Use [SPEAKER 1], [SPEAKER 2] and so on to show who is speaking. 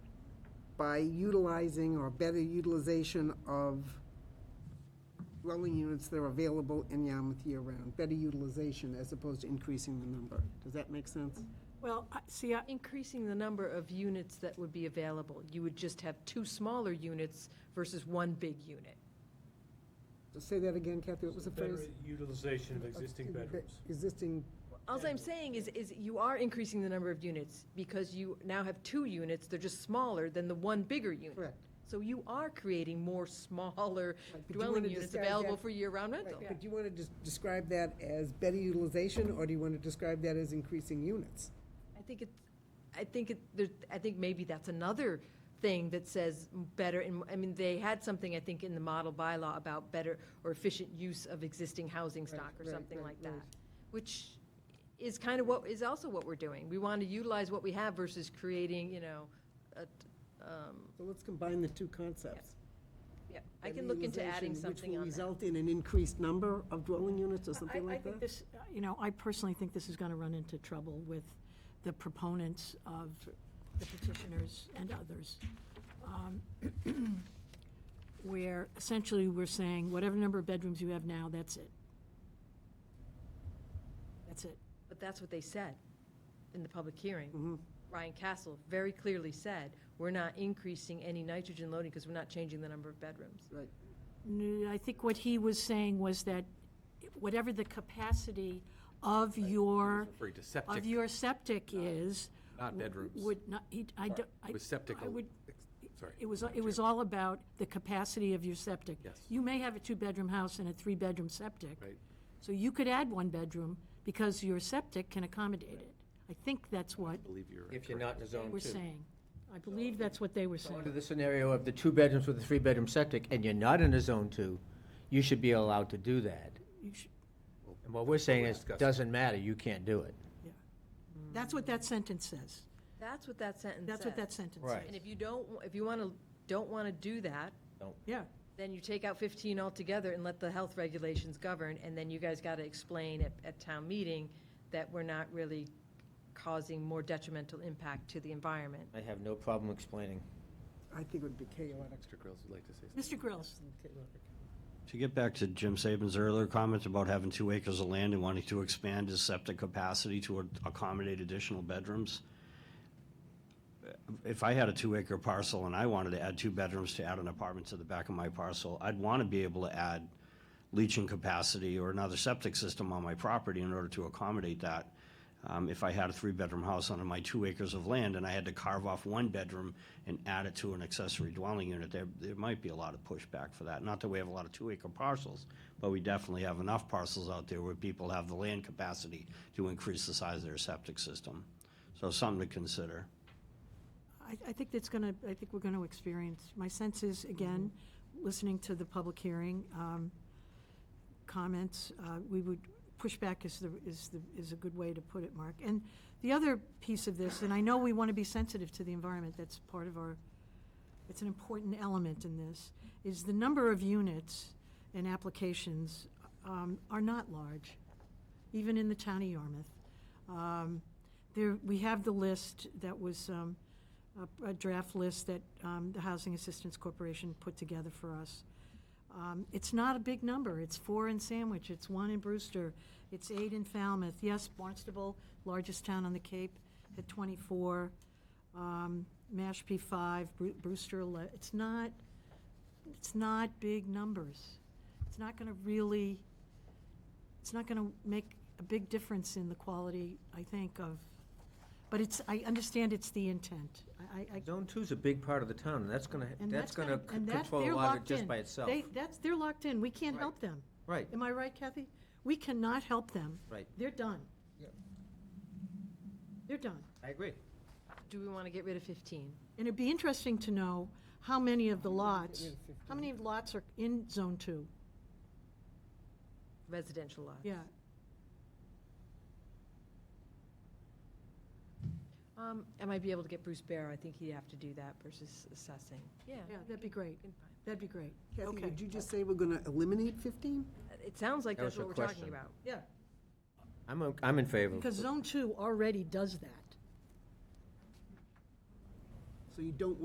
[SPEAKER 1] by utilizing or better utilization of dwelling units that are available in Yarmouth year-round, better utilization as opposed to increasing the number. Does that make sense?
[SPEAKER 2] Well, I- see, I-
[SPEAKER 3] Increasing the number of units that would be available. You would just have two smaller units versus one big unit.
[SPEAKER 1] Say that again, Kathy, what was the
[SPEAKER 4] Better
[SPEAKER 1] phrase?
[SPEAKER 4] Utilization of existing bedrooms.
[SPEAKER 1] Existing,
[SPEAKER 3] Alls I'm saying is, is you are increasing the number of units because you now have two units, they're just smaller than the one bigger unit.
[SPEAKER 1] correct.
[SPEAKER 3] So you are creating more smaller
[SPEAKER 1] Right, but you
[SPEAKER 3] dwelling
[SPEAKER 1] wanna
[SPEAKER 3] units
[SPEAKER 1] describe
[SPEAKER 3] available
[SPEAKER 1] that-
[SPEAKER 3] for year-round
[SPEAKER 1] Right,
[SPEAKER 3] rental.
[SPEAKER 1] But do you want to describe that as better utilization, or do you want to describe that as increasing units?
[SPEAKER 3] I think it, I think it, there- I think maybe that's another thing that says better, and, I mean, they had something, I think, in the model bylaw about better or efficient use of existing housing stock or
[SPEAKER 1] right,
[SPEAKER 3] something
[SPEAKER 1] right,
[SPEAKER 3] like that,
[SPEAKER 1] right.
[SPEAKER 3] which is kind of what, is also what we're doing. We want to utilize what we have versus creating, you know, a t- um,
[SPEAKER 1] So let's combine the two concepts.
[SPEAKER 3] yeah, I can look into adding
[SPEAKER 1] Utilization,
[SPEAKER 3] something on
[SPEAKER 1] Which
[SPEAKER 3] that.
[SPEAKER 1] will result in an increased number of dwelling units or
[SPEAKER 2] I-
[SPEAKER 1] something
[SPEAKER 2] I
[SPEAKER 1] like
[SPEAKER 2] think
[SPEAKER 1] that?
[SPEAKER 2] this, uh, you know, I personally think this is going to run into trouble with the proponents of the petitioners and others, um, where essentially we're saying, whatever number of bedrooms you have now, that's it. That's it.
[SPEAKER 3] But that's what they said in the public hearing.
[SPEAKER 1] Mhm.
[SPEAKER 3] Ryan Castle very clearly said, we're not increasing any nitrogen loading because we're not changing the number of bedrooms.
[SPEAKER 1] Right,
[SPEAKER 2] No, I think what he was saying was that whatever the capacity of your,
[SPEAKER 5] Referring to septic,
[SPEAKER 2] of your septic is.
[SPEAKER 5] not
[SPEAKER 2] w-
[SPEAKER 5] bedrooms.
[SPEAKER 2] Would not, he, I don't. I-
[SPEAKER 5] With septic
[SPEAKER 2] I
[SPEAKER 5] al-
[SPEAKER 2] would,
[SPEAKER 5] Sorry.
[SPEAKER 2] it was, it was all about the capacity of your septic.
[SPEAKER 5] Yes.
[SPEAKER 2] You may have a two-bedroom house and a three-bedroom septic.
[SPEAKER 5] Right.
[SPEAKER 2] So you could add one bedroom because your septic can accommodate it. I think that's what
[SPEAKER 5] I believe you're
[SPEAKER 6] If you're not in zone
[SPEAKER 2] we're
[SPEAKER 6] two.
[SPEAKER 2] saying. I believe that's what they were
[SPEAKER 6] So Under
[SPEAKER 2] saying.
[SPEAKER 6] the scenario of the two bedrooms with a three-bedroom septic, and you're not in a zone two, you should be allowed to do that.
[SPEAKER 2] You should-
[SPEAKER 6] And what we're saying is,
[SPEAKER 5] Discuss.
[SPEAKER 6] doesn't matter, you can't do it.
[SPEAKER 2] That's what that sentence says.
[SPEAKER 3] That's what that sentence
[SPEAKER 2] That's what
[SPEAKER 3] says.
[SPEAKER 2] that sentence says.
[SPEAKER 6] Right.
[SPEAKER 3] And if you don't, if you want to, don't want to do that,
[SPEAKER 2] Yeah.
[SPEAKER 3] then you take out 15 altogether and let the health regulations govern, and then you guys got to explain at, at town meeting that we're not really causing more detrimental impact to the environment.
[SPEAKER 6] I have no problem explaining.
[SPEAKER 1] I think it would be chaotic.
[SPEAKER 5] Extra girls would like to say something.
[SPEAKER 2] Mr. Grills,
[SPEAKER 7] To get back to Jim Saban's earlier comments about having two acres of land and wanting to expand his septic capacity to accommodate additional bedrooms, if I had a two-acre parcel and I wanted to add two bedrooms to add an apartment to the back of my parcel, I'd want to be able to add leaching capacity or another septic system on my property in order to accommodate that. Um, If I had a three-bedroom house on my two acres of land and I had to carve off one bedroom and add it to an accessory dwelling unit, there, there might be a lot of pushback for that. Not that we have a lot of two-acre parcels, but we definitely have enough parcels out there where people have the land capacity to increase the size of their septic system. So something to consider.
[SPEAKER 2] I, I think that's going to, I think we're going to experience, my sense is, again, listening to the public hearing, um, comments, uh, we would, pushback is the, is the, is a good way to put it, Mark. And the other piece of this, and I know we want to be sensitive to the environment, that's part of our, it's an important element in this, is the number of units and applications um, are not large, even in the town of Yarmouth. Um, There, we have the list that was, um, a- a draft list that um, the Housing Assistance Corporation put together for us. Um, It's not a big number. It's four in Sandwich, it's one in Brewster, it's eight in Falmouth. Yes, Barnstable, largest town on the Cape, had 24. Um, Mashpee, five, Bru- Brewster, 11. It's not, it's not big numbers. It's not going to really, it's not going to make a big difference in the quality, I think, of, but it's, I understand it's the intent. I, I- I,
[SPEAKER 6] Zone two's a big part of the town, and that's gonna,
[SPEAKER 2] and
[SPEAKER 6] that's gonna
[SPEAKER 2] gonna-
[SPEAKER 6] c-
[SPEAKER 2] and that-
[SPEAKER 6] control
[SPEAKER 2] they're
[SPEAKER 6] a lot of
[SPEAKER 2] locked
[SPEAKER 6] it just
[SPEAKER 2] in.
[SPEAKER 6] by itself.
[SPEAKER 2] They, that's, they're locked in. We can't
[SPEAKER 6] Right.
[SPEAKER 2] help them.
[SPEAKER 6] Right,
[SPEAKER 2] Am I right, Kathy? We cannot help them.
[SPEAKER 6] right,
[SPEAKER 2] They're done.
[SPEAKER 1] Yep.
[SPEAKER 2] They're done.
[SPEAKER 6] I agree.
[SPEAKER 3] Do we want to get rid of 15?
[SPEAKER 2] And it'd be interesting to know how many of the lots,
[SPEAKER 1] rid of
[SPEAKER 2] how many lots are in Zone Two?
[SPEAKER 3] Residential lots?
[SPEAKER 2] Yeah,
[SPEAKER 3] Um, I might be able to get Bruce Barrow, I think he'd have to do that versus assessing. Yeah.
[SPEAKER 2] yeah, that'd be great.
[SPEAKER 3] we can find-
[SPEAKER 2] That'd be great.
[SPEAKER 1] Kathy,
[SPEAKER 2] Okay.
[SPEAKER 1] would you just say we're going to eliminate 15?
[SPEAKER 3] It sounds like
[SPEAKER 6] That
[SPEAKER 3] that's
[SPEAKER 6] was
[SPEAKER 3] what
[SPEAKER 6] her
[SPEAKER 3] we're talking
[SPEAKER 6] question.
[SPEAKER 3] about.
[SPEAKER 2] Yeah,
[SPEAKER 6] I'm, o- I'm in favor.
[SPEAKER 2] because Zone Two already does that.
[SPEAKER 1] So you don't